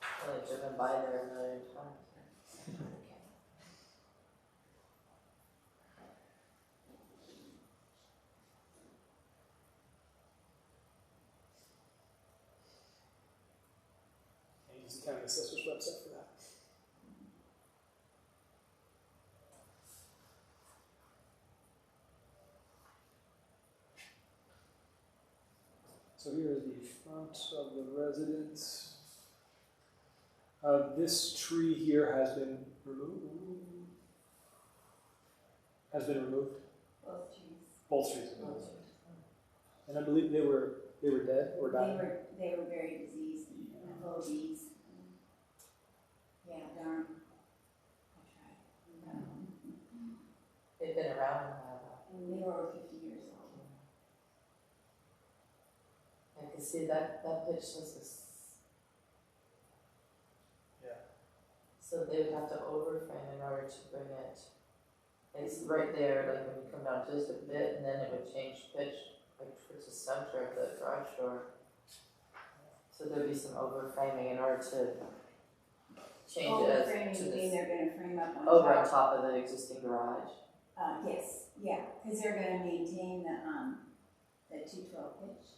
I've been by there a million times. And use the county assessor's website for that. So here is the front of the residence. Uh, this tree here has been removed. Has been removed. Both trees. Both trees have been removed. Both trees. And I believe they were they were dead or They dying. were, they were very diseased and full of bees. Yeah, darn. I tried. Um, They've been around a while. And they were over fifty years old. I can see that, that pitch was this. Yeah. So they would have to overframe in order to bring it, it's right there, like when you come down just a bit, and then it would change pitch, like towards the center of the garage door. So there'd be some overframing in order to change Over it Oh, framing, as to you this, Oh, mean they're gonna frame up on top? over on top of the existing garage. Uh, yes, yeah, because they're gonna maintain the, um, the two twelve pitch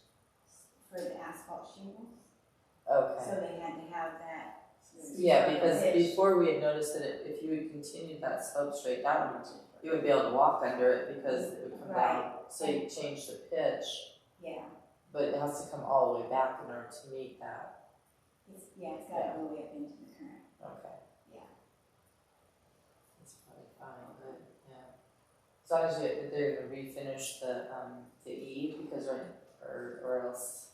for the asphalt shingles. Okay. So they had to have that. so there's Yeah, because pitch. before we had noticed that it- if you had continued that slope straight down, you would be able to walk under it because it would come down. So you change the pitch, Yeah, but it has to come all the way back in order to meet that. it's, yeah, it's got all the way up into the current. Okay. Yeah. That's probably fine, but yeah. As long as you- they're gonna refinish the, um, the E because right, or, or else.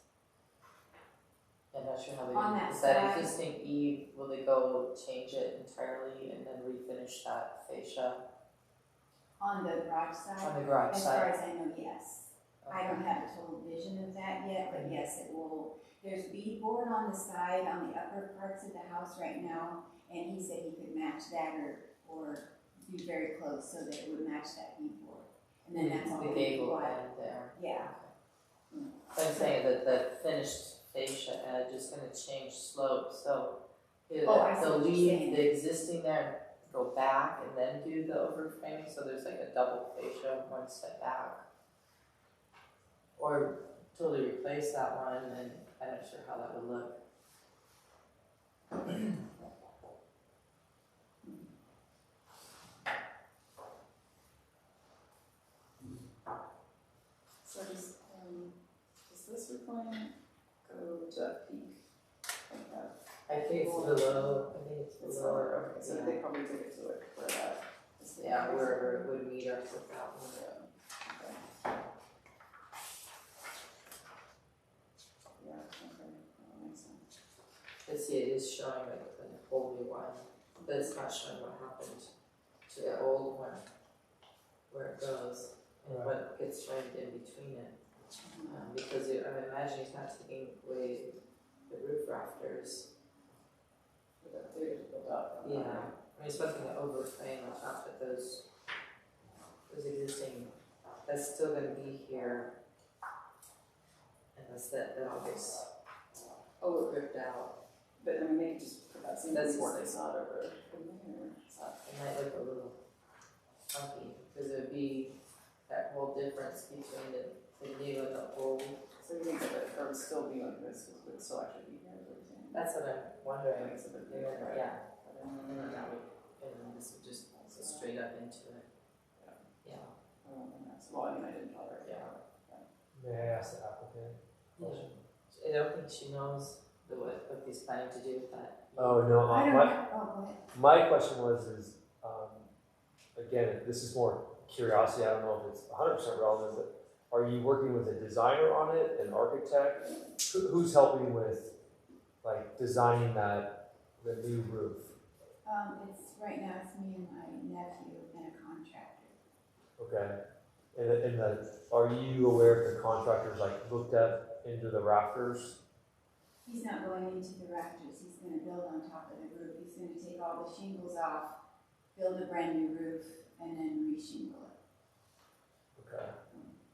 I'm not sure how they. On that Is that side. existing E, will they go change it entirely and then refinish that fascia? On the garage side, On the garage as side. far as I know, yes. I don't have a total vision of that yet, but yes, it will. There's beadboard on the side, on the upper parts of the house right now, and he said he could match that or, or be very close so that it would match that beadboard. And then that's all. The we gable want. end there. Yeah, So I'm saying that the finished fascia edge is gonna change slope, so either Oh, I see they'll what you're leave saying. the existing there, and go back and then do the overframing, so there's like a double fascia, one step back. Or totally replace that one, and I'm not sure how that would look. So does, um, does this requirement go to that peak? Like that? I think it's below, I think it's It's below or, So they probably did it to it for that. Is the- yeah, wherever it would meet up with that one. Yeah, okay. Yeah, okay, that makes sense. I see it is showing like an whole new one, but it's not showing what happened to the old one, where it goes and what gets framed in between it. Um, because it, I'm imagining it's not taking away the roof rafters. But that data to build up. Yeah, I mean, it's nothing to overframe on top of those, those existing, that's still gonna be here. Unless that, that all gets Oh, ripped out, but I mean, they could just put that same That's- board it's not over, in there, it's not it might look a little funky, because it'd be that whole difference between the, the new and the old. So you think that it- there would still be like this, it would still actually be here, is what you're saying? That's what I'm wondering, Makes it a bit They're different, gonna- right? yeah, Mm-hmm. and then But, um, that would, and then this would just go straight up into it. Yeah. Yeah. I don't think that's- Well, I mean, I didn't bother. Yeah. May I ask the applicant? a question? I don't think she knows the what, what he's planning to do with that. Oh, no, I uh, don't my, know, oh, go ahead. my question was, is, um, again, this is more curiosity, I don't know if it's hundred percent relevant, but are you working with a designer on it, an architect? Who, who's helping with, like, designing that, the new roof? Um, it's, right now it's me and my nephew and a contractor. Okay, and, the- and the, are you aware if the contractors, like, looked up into the rafters? He's not going into the rafters, he's gonna build on top of the roof, he's gonna take all the shingles off, build a brand new roof, and then re-shingle it. Okay,